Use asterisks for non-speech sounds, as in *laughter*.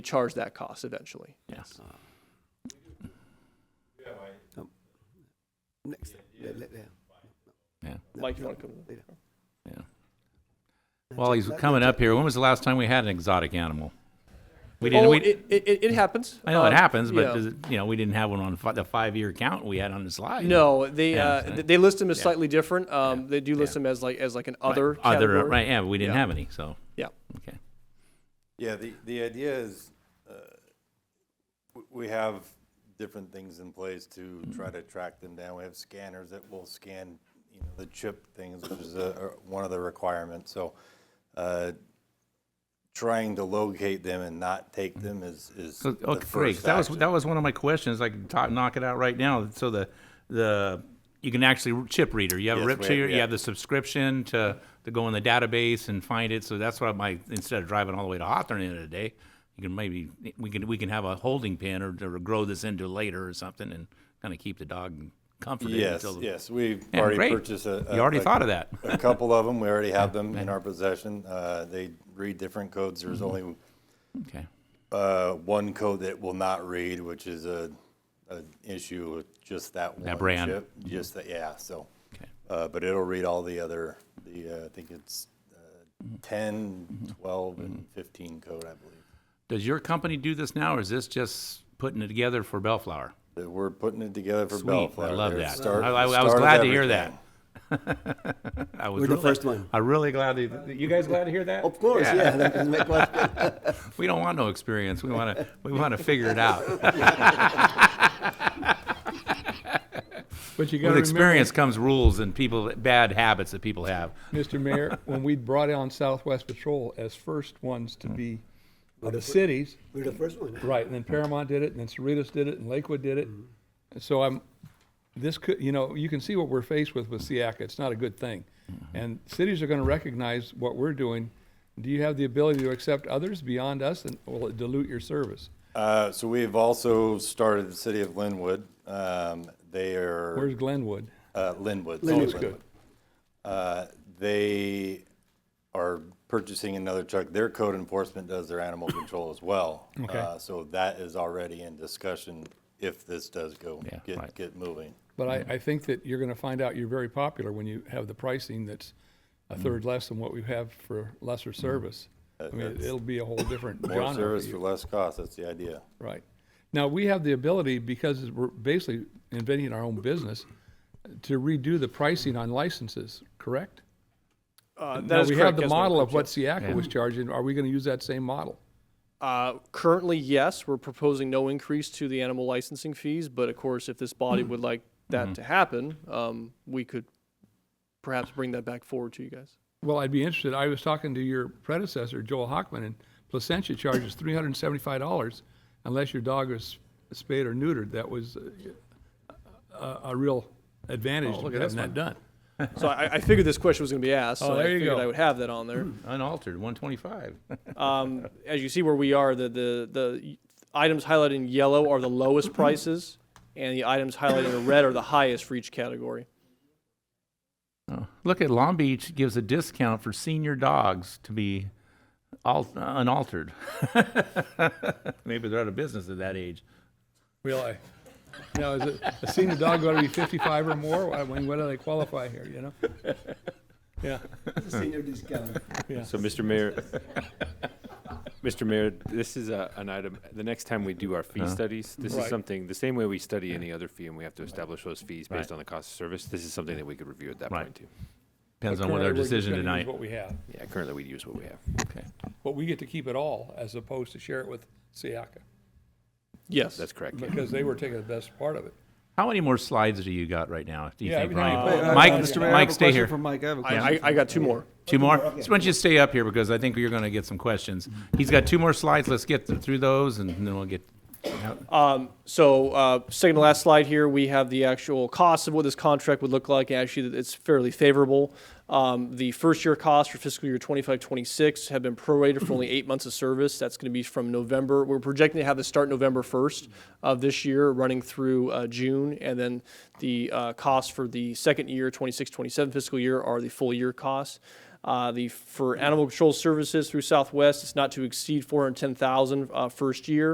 charge that cost eventually. Yes. Oh. Next, le- le- yeah. Yeah. No, Mike, you no, want to come? later. While he's That- coming that- up here, when was the last time we had an exotic animal? We didn't. Oh, we, it, it, it- it happens. I know it Um, happens, but yeah. does it, you know, we didn't have one on fi- the five-year count we had on the slide. No, they, Yeah, uh, so- th- they list them as slightly different. Um, they do list Yeah. them as like, as like an Right, other other, category. right? Yeah, we didn't Yeah. have any. So Yeah. okay. Yeah, the, the idea is, uh, w- we have different things in place to try to track them down. We have scanners that will scan, you know, the chip things, which is uh, are one of the requirements. So uh, trying to locate them and not take them is, is So, the Oh, okay, great. first That was action. that was one of my questions. I can talk, knock it out right now. So the the you can actually chip reader. You have a Yes, rip we- reader. You yeah. have the subscription to to go in the database and find it. So that's what my instead of driving all the way to Hawthorne at the end of the day, you can maybe we can we can have a holding pen or, or grow this into later or something and kind of keep the dog comforted. Yes, until the, yes, we've Yeah, already great. purchased a. You already a- thought of that. A couple of them, we already have them in our possession. Uh, They read different codes. There's Mm-hmm. only Okay. uh, one code that will not read, which is a, an issue with just that one brand. Mm-hmm. chip. Just that, yeah. So, Okay. uh, but it'll read all the other. The uh, I think it's uh, Mm-hmm. 10, 12, and 15 code, I believe. Does your company do this now, or is this just putting it together for Bellflower? That we're putting it together for Sweet. Bellflower. I love They're that. start- I, I- I start was of glad to hear everything. that. *laughs* I was We're the really- first one. Oh. I'm really glad to, you guys glad to hear that? Of course, yeah, that is my question. We don't want no experience. We want to, we want to figure it out. But you got With to experience comes rules and people, bad habits that people have. Mr. Mayor, when we brought on Southwest Patrol as first ones to be of the cities, We're the first one. Hmm. right? And then Paramount did it, and then Cerritos did it, and Lakewood did it. And so I'm, this could, you know, you can see what we're faced with with SIACA. It's not a good thing, and cities are going to recognize what we're doing. Do you have the ability to accept others beyond us, and will it dilute your service? Uh, so we've also started the city of Linwood. Um, they are Where's Glenwood? uh, Linwood. it's Linwood's only good. Uh, they are purchasing another truck. Their code enforcement does *coughs* their animal control as well. Okay. Uh, so that is already in discussion if this does go Yeah, get right. get moving. But I, I think that you're gonna find out you're very popular when you have the pricing that's a Mm. third less than what we have for lesser service. Uh, I mean, it'll be a whole different More genre for service for you, less cost. That's the idea. right? Now, we have the ability, because we're basically inventing our own business, to redo the pricing on licenses, correct? Uh, that Now, is we correct, have the that's what it model of comes what to. Siaka was charging, are we gonna use that same model? Uh, currently, yes, we're proposing no increase to the animal licensing fees, but of course, if this Hmm. body would like that to happen, um, we could perhaps bring that back forward to you guys. Well, I'd be interested. I was talking to your predecessor, Joel Hockman, and Placentia charges three hundred and seventy-five dollars unless your dog is spayed or neutered. That was uh, a, a real advantage to having Oh, that done. So I, I figured this question was going to be asked, so Oh, I there you figured go. I would have that on there. Unaltered, one twenty-five. Um, as you see where we are, the, the, the items highlighted in yellow are the lowest prices, and the items highlighted in red are the highest for each category. Look at Long Beach gives a discount for senior dogs to be al- unaltered. *laughs* Maybe they're out of business at that age. Really? Now, is it, a senior dog got to be fifty-five or more? I mean, what do they qualify here? You know? Yeah. Senior discount. So, Mr. Mayor, *laughs* Mr. Mayor, this is a, an item, the next time we do our Uh-huh. fee studies, this Right. is something, the same way we study any other fee and we have to establish those fees Right. based on the cost of service, this is something that we could review at that Right. point too. Depends on Currently, what we're our just decision gonna use tonight. What we have, Yeah, currently we use what we have. Okay. but we get to keep it all as opposed to share it with Siaka Yes. That's correct. yeah. because they were taking the best part of it. How many more slides do you got right now? Do you Yeah, think, every time you Ryan? play it, I- Mike, I- Mr. I Mayor, Mike, stay here. Mike, I have a I, I, I got two more. Two more. So why don't you stay up here because I think you're going to get some questions. He's got two more slides. Let's get th- through those and then we'll get. So, uh, second to last slide here, we have the actual cost of what this contract would look like. Actually, it's fairly favorable. Um, the first year cost for fiscal year 25 26 have been prorated for only eight months of service. That's going to be from November. We're projecting to have this start November 1st of this year, running through uh, June. And then the uh, costs for the second year, 26 27 fiscal year, are the full year costs. Uh, the for animal control services through Southwest, it's not to exceed 410,000 uh, first year.